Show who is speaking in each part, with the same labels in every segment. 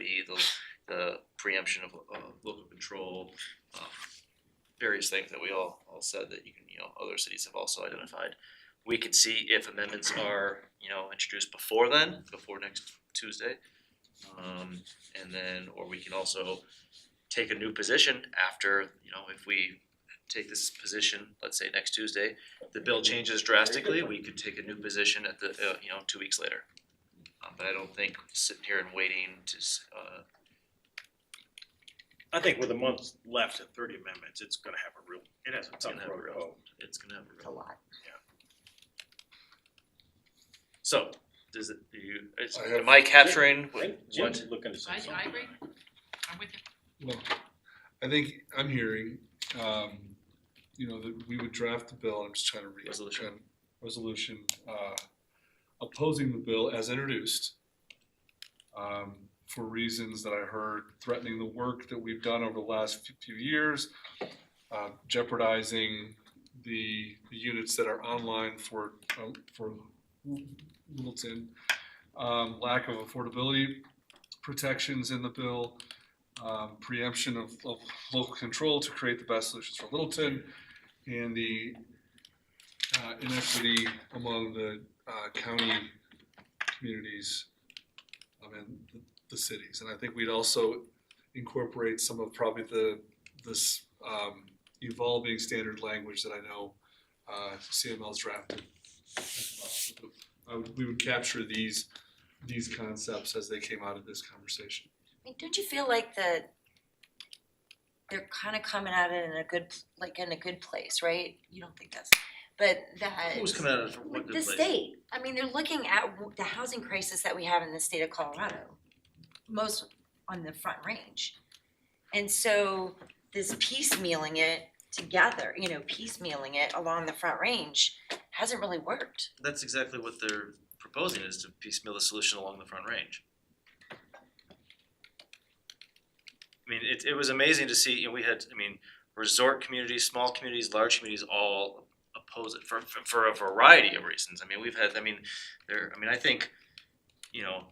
Speaker 1: E, the, the preemption of, uh local control, um, various things that we all, all said that you can, you know, other cities have also identified. We can see if amendments are, you know, introduced before then, before next Tuesday. Um, and then, or we can also take a new position after, you know, if we take this position, let's say next Tuesday, the bill changes drastically, we could take a new position at the, uh, you know, two weeks later. Um, but I don't think sitting here and waiting to, s- uh,
Speaker 2: I think with a month left at thirty amendments, it's gonna have a real, it has a
Speaker 1: It's
Speaker 2: ton
Speaker 1: gonna have a
Speaker 2: of
Speaker 1: real-
Speaker 2: vote.
Speaker 1: it's gonna have a real.
Speaker 3: a lot.
Speaker 1: So, does it, do you, is,
Speaker 4: I have-
Speaker 1: am I capturing what,
Speaker 2: Jim's looking to say
Speaker 5: I, I
Speaker 2: something.
Speaker 5: agree, I'm with you.
Speaker 4: Well, I think I'm hearing, um, you know, that we would draft the bill, I'm just trying to read.
Speaker 1: Resolution.
Speaker 4: trying- Resolution, uh, opposing the bill as introduced. Um, for reasons that I heard threatening the work that we've done over the last few- few years. Uh, jeopardizing the, the units that are online for, uh, for Littleton. Um, lack of affordability protections in the bill um, preemption of, of local control to create the best solutions for Littleton, and the uh, inequity among the uh, county communities um, and the, the cities. And I think we'd also incorporate some of probably the this um, evolving standard language that I know uh, CML's drafted. I would, we would capture these these concepts as they came out of this conversation.
Speaker 3: I mean, don't you feel like the they're kind of coming at it in a good pl- like in a good place, right? You don't think that's, but that
Speaker 1: who's coming out of what
Speaker 3: Like
Speaker 1: good
Speaker 3: the
Speaker 1: place?
Speaker 3: state. I mean, they're looking at w- the housing crisis that we have in the state of Colorado, most on the Front Range, and so this piecemealing it together, you know, piecemealing it along the Front Range hasn't really worked.
Speaker 1: That's exactly what they're proposing is to piecemeal the solution along the front range. I mean, it, it was amazing to see, you know, we had, I mean, resort communities, small communities, large communities all oppose it for, for- for a variety of reasons. I mean, we've had, I mean, there, I mean, I think, you know,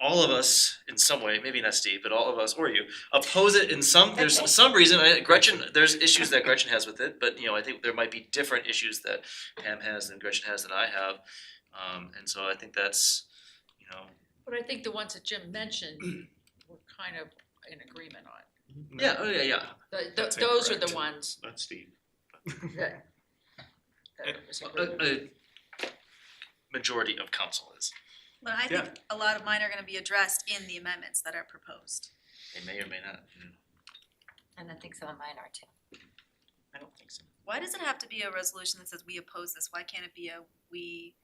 Speaker 1: all of us in some way, maybe not Steve, but all of us or you, oppose it in some, there's some reason, I, Gretchen, there's issues that Gretchen has with it, but you know, I think there might be different issues that Pam has and Gretchen has that I have. Um, and so I think that's, you know,
Speaker 5: But I think the ones that Jim mentioned, we're kind of in agreement on.
Speaker 1: yeah, oh, yeah, yeah.
Speaker 5: Th- th-
Speaker 6: That's
Speaker 5: those are the
Speaker 6: incorrect.
Speaker 5: ones
Speaker 6: Not Steve.
Speaker 5: that. that was
Speaker 1: uh,
Speaker 5: agreed
Speaker 1: A, a majority of council is.
Speaker 7: But I think a lot of mine are gonna be addressed in the amendments that are proposed.
Speaker 1: They may or may not. mm.
Speaker 3: And I think some of mine are too.
Speaker 5: I don't think so.
Speaker 7: Why does it have to be a resolution that says we oppose this? Why can't it be a we,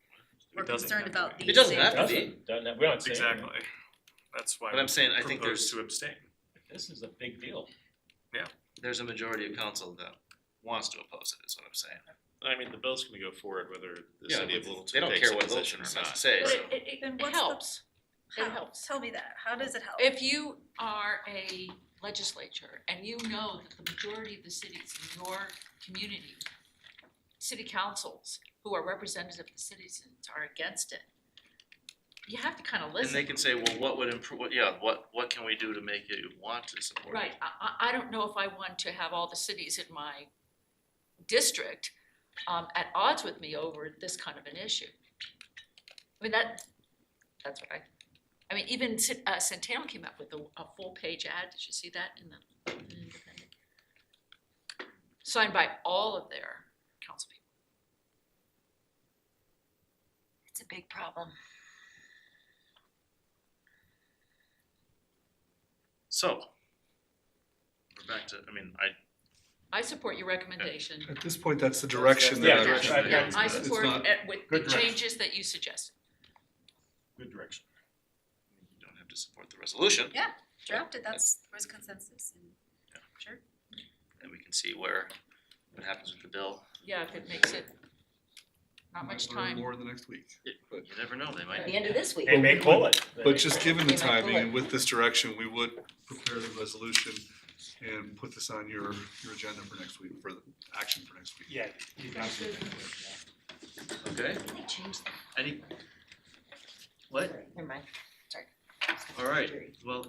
Speaker 7: we're
Speaker 6: It doesn't
Speaker 7: concerned
Speaker 6: have to
Speaker 7: about
Speaker 6: be.
Speaker 1: It
Speaker 7: these?
Speaker 1: doesn't
Speaker 7: things?
Speaker 1: have to be.
Speaker 2: Doesn't, doesn't, we don't say. anything.
Speaker 6: Exactly. That's why
Speaker 1: But I'm saying, I
Speaker 6: we
Speaker 1: think
Speaker 6: propose
Speaker 1: there's,
Speaker 6: to abstain.
Speaker 2: This is a big deal.
Speaker 1: there's a majority of council that wants to oppose it, is what I'm saying.
Speaker 6: I mean, the bill's gonna go forward whether the
Speaker 1: Yeah,
Speaker 6: city of
Speaker 1: but
Speaker 6: Littleton
Speaker 1: They don't
Speaker 6: takes
Speaker 1: care
Speaker 6: a
Speaker 1: what
Speaker 6: position
Speaker 1: Littleton
Speaker 6: or
Speaker 1: has to
Speaker 6: not.
Speaker 1: say,
Speaker 5: But
Speaker 1: so.
Speaker 5: it- it,
Speaker 7: Then
Speaker 5: it,
Speaker 7: what's the-
Speaker 5: helps. It
Speaker 7: How?
Speaker 5: helps.
Speaker 7: Tell me that. How does it help?
Speaker 5: If you are a legislature and you know that the majority of the cities in your community, city councils who are representative of the citizens are against it, you have to kind of
Speaker 1: And
Speaker 5: listen.
Speaker 1: they can say, well, what would improve, what- yeah, what, what can we do to make you want to support it?
Speaker 5: Right, I, I, I don't know if I want to have all the cities in my district, um, at odds with me over this kind of an issue. I mean, that, that's what I, I mean, even Cent- uh, Centennial came up with a, a full-page ad, did you see that in the in the Independent? Signed by all of their council people.
Speaker 3: It's a big problem.
Speaker 1: So. We're back to, I mean, I,
Speaker 5: I support your recommendation,
Speaker 4: At this point, that's the direction
Speaker 2: Yeah,
Speaker 4: that I'm.
Speaker 2: direction, yeah.
Speaker 5: yeah, I
Speaker 4: It's
Speaker 5: support
Speaker 4: not-
Speaker 5: it with the
Speaker 4: good direction.
Speaker 5: changes that you suggested.
Speaker 2: Good direction.
Speaker 1: you don't have to support the resolution,
Speaker 7: Drafted, that's, there's consensus and, sure.
Speaker 1: and we can see where, what happens with the bill.
Speaker 5: Yeah, if it makes it, not much
Speaker 4: Learn
Speaker 5: time.
Speaker 4: More the next week.
Speaker 1: You never know, they might.
Speaker 3: At the end of this week.
Speaker 2: They may pull it.
Speaker 4: But just given the
Speaker 3: Yeah, my
Speaker 4: timing and
Speaker 3: bullet.
Speaker 4: with this direction, we would prepare the resolution and put this on your, your agenda for next week, for the action for next week.
Speaker 6: Yeah.
Speaker 1: Okay,
Speaker 3: They changed
Speaker 1: any? What?
Speaker 3: Never mind.
Speaker 1: All right, well,